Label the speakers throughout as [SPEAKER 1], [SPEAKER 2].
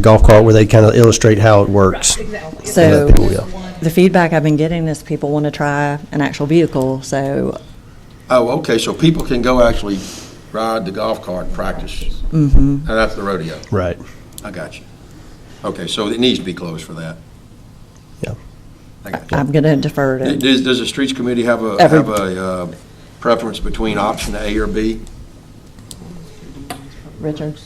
[SPEAKER 1] golf cart where they kind of illustrate how it works.
[SPEAKER 2] Exactly.
[SPEAKER 1] Yeah,
[SPEAKER 3] So,
[SPEAKER 1] people will.
[SPEAKER 3] the feedback I've been getting is people want to try an actual vehicle, so,
[SPEAKER 4] Oh, okay, so people can go actually ride the golf cart and practice? Mm-hmm. And that's the rodeo?
[SPEAKER 1] Right,
[SPEAKER 4] I got you. Okay, so it needs to be closed for that?
[SPEAKER 1] yeah.
[SPEAKER 4] I got you.
[SPEAKER 3] I'm going to defer to,
[SPEAKER 4] Does, does the streets committee have a,
[SPEAKER 3] Every-
[SPEAKER 4] have a uh, preference between option A or B?
[SPEAKER 3] Richard?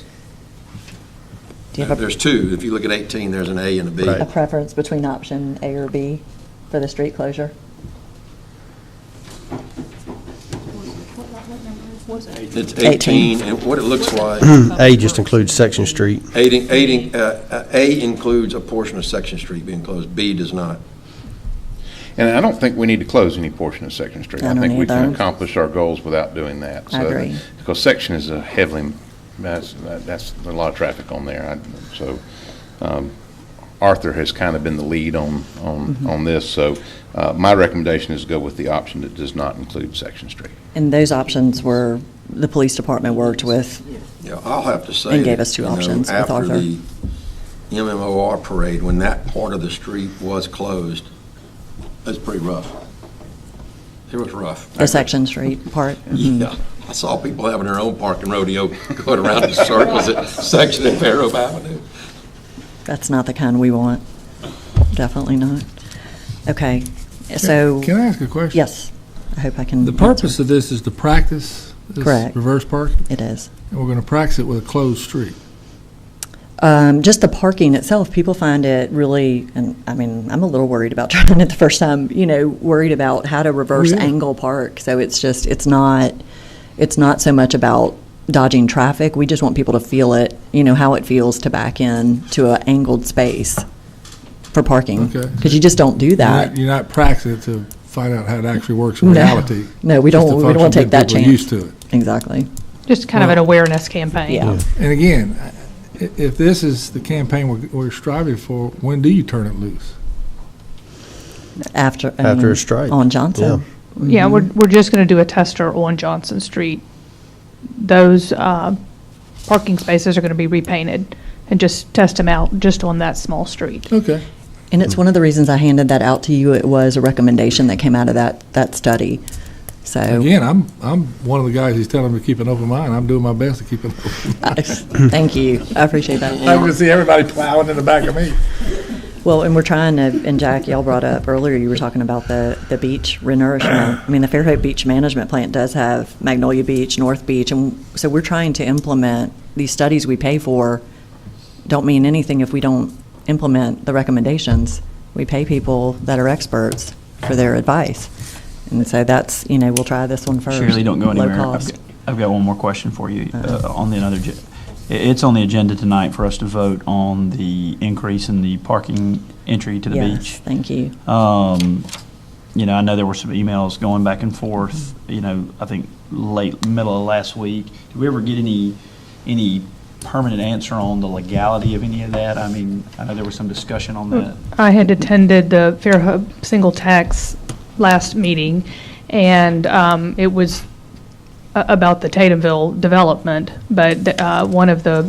[SPEAKER 3] Do you have a-
[SPEAKER 4] There's two. If you look at 18, there's an A and a B.
[SPEAKER 3] a
[SPEAKER 1] Right.
[SPEAKER 3] preference between option A or B for the street closure?
[SPEAKER 2] What, what number was it?
[SPEAKER 4] It's
[SPEAKER 3] 18.
[SPEAKER 4] 18, and what it looks like,
[SPEAKER 1] A just includes Section Street.
[SPEAKER 4] eight in- eight in- uh, uh, A includes a portion of Section Street being closed, B does not.
[SPEAKER 5] And I don't think we need to close any portion of Section Street.
[SPEAKER 3] I
[SPEAKER 5] I
[SPEAKER 3] don't
[SPEAKER 5] think we can
[SPEAKER 3] either.
[SPEAKER 5] accomplish our goals without doing that.
[SPEAKER 3] I
[SPEAKER 5] So-
[SPEAKER 3] agree.
[SPEAKER 5] Because Section is a heavily, that's, that- that's a lot of traffic on there. I- So um, Arthur has kind of been the lead on,
[SPEAKER 3] Mm-hmm.
[SPEAKER 5] on, on this. So uh, my recommendation is to go with the option that does not include Section Street.
[SPEAKER 3] And those options were, the police department worked with,
[SPEAKER 4] Yeah, I'll have to say.
[SPEAKER 3] And gave
[SPEAKER 4] that,
[SPEAKER 3] us two
[SPEAKER 4] you know,
[SPEAKER 3] options with Arthur.
[SPEAKER 4] After the MMOR parade, when that part of the street was closed, that's pretty rough. It was rough.
[SPEAKER 3] the section street part. Mm-hmm.
[SPEAKER 4] Yeah, I saw people having their own parking rodeo going around in circles at section of Fair Hope Avenue.
[SPEAKER 3] That's not the kind we want. Definitely not. Okay, so,
[SPEAKER 6] Can I ask a question?
[SPEAKER 3] yes, I hope I can.
[SPEAKER 6] The
[SPEAKER 3] answer.
[SPEAKER 6] purpose of this is to practice this
[SPEAKER 3] Correct.
[SPEAKER 6] reverse parking,
[SPEAKER 3] It is.
[SPEAKER 6] and we're going to practice it with a closed street.
[SPEAKER 3] Um, just the parking itself, people find it really, and I mean, I'm a little worried about trying it the first time, you know, worried about how to reverse
[SPEAKER 6] yeah.
[SPEAKER 3] angle park. So it's just, it's not, it's not so much about dodging traffic. We just want people to feel it, you know, how it feels to back in to an angled space for parking.
[SPEAKER 6] Okay.
[SPEAKER 3] Because you just don't do
[SPEAKER 6] You're
[SPEAKER 3] that.
[SPEAKER 6] not- You're not practicing it to find out how it actually works in
[SPEAKER 3] No.
[SPEAKER 6] reality.
[SPEAKER 3] No, we
[SPEAKER 6] just
[SPEAKER 3] don't-
[SPEAKER 6] to
[SPEAKER 3] we don't wanna
[SPEAKER 6] function,
[SPEAKER 3] take that
[SPEAKER 6] get people
[SPEAKER 3] chance.
[SPEAKER 6] used to it.
[SPEAKER 3] Exactly.
[SPEAKER 2] Just kind of an awareness campaign.
[SPEAKER 3] Yeah.
[SPEAKER 6] And again, i- if this is the campaign we're- we're striving for, when do you turn it loose?
[SPEAKER 3] After, I
[SPEAKER 1] After a
[SPEAKER 3] mean,
[SPEAKER 1] strike.
[SPEAKER 3] On Johnson.
[SPEAKER 2] Yeah, we're, we're just going to do a tester on Johnson Street. Those uh, parking spaces are going to be repainted and just test them out just on that small street.
[SPEAKER 6] Okay.
[SPEAKER 3] And
[SPEAKER 1] Hmm.
[SPEAKER 3] it's one of the reasons I handed that out to you. It was a recommendation that came out of that, that study. So,
[SPEAKER 6] Again, I'm, I'm one of the guys who's telling me to keep an open mind. I'm doing my best to keep an open mind.
[SPEAKER 3] I- thank you. I appreciate that.
[SPEAKER 6] I'm going to see everybody plowing in the back of me.
[SPEAKER 3] Well, and we're trying to, and Jack, y'all brought up earlier, you were talking about the, the beach renourishment. I mean, the Fairhope Beach Management Plant does have Magnolia Beach, North Beach, and so we're trying to implement, these studies we pay for don't mean anything if we don't implement the recommendations. We pay people that are experts for their advice. And so that's, you know, we'll try this one first.
[SPEAKER 7] Shirley, don't go anywhere.
[SPEAKER 3] Low
[SPEAKER 7] I've
[SPEAKER 3] cost. Uh-huh.
[SPEAKER 7] got- I've got one more question for you uh, on the another, ge- i- it's on the agenda tonight for us to vote on the increase in the parking entry to the
[SPEAKER 3] Yes,
[SPEAKER 7] beach.
[SPEAKER 3] thank you.
[SPEAKER 7] Um, You know, I know there were some emails going back and forth,
[SPEAKER 3] Mm-hmm.
[SPEAKER 7] you know, I think late, middle of last week. Did we ever get any, any permanent answer on the legality of any of that? I mean, I know there was some discussion
[SPEAKER 3] Hmm.
[SPEAKER 7] on that.
[SPEAKER 2] I had attended the Fair Hub Single Tax last meeting, and um, it was a- about the Tatumville development, but uh, one of the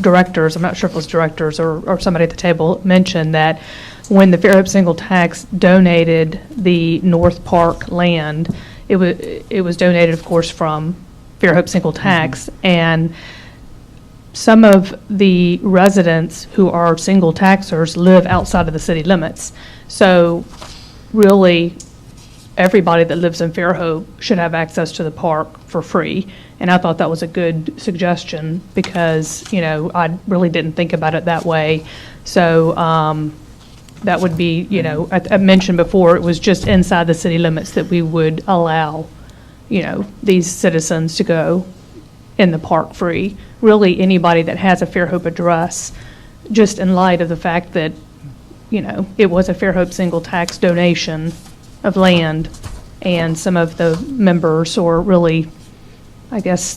[SPEAKER 2] directors, I'm not sure if it was directors or or somebody at the table, mentioned that when the Fair Hope Single Tax donated the North Park land, it was, it was donated, of course, from Fair Hope Single Tax, and some of the residents who are single taxers live outside of the city limits. So really, everybody that lives in Fairhope should have access to the park for free. And I thought that was a good suggestion because, you know, I really didn't think about it that way. So um, that would be, you know, I I mentioned before, it was just inside the city limits that we would allow, you know, these citizens to go in the park free. Really, anybody that has a Fairhope address, just in light of the fact that, you know, it was a Fairhope single tax donation of land, and some of the members, or really, I guess,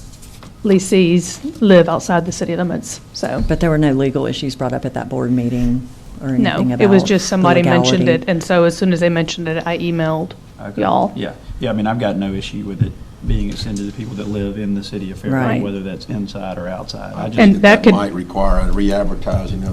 [SPEAKER 2] leasees live outside the city limits, so.
[SPEAKER 3] But there were no legal issues brought up at that board meeting or anything about
[SPEAKER 2] No, it was just
[SPEAKER 3] the
[SPEAKER 2] somebody mentioned
[SPEAKER 3] legality.
[SPEAKER 2] it, and so as soon as they mentioned it, I emailed
[SPEAKER 7] Okay.
[SPEAKER 2] y'all.
[SPEAKER 7] Yeah, yeah, I mean, I've got no issue with it being extended to people that live in the city of
[SPEAKER 3] Right.
[SPEAKER 7] Fairfield, whether that's inside or outside. I just-
[SPEAKER 2] And that could-
[SPEAKER 4] Might require a re-advertising of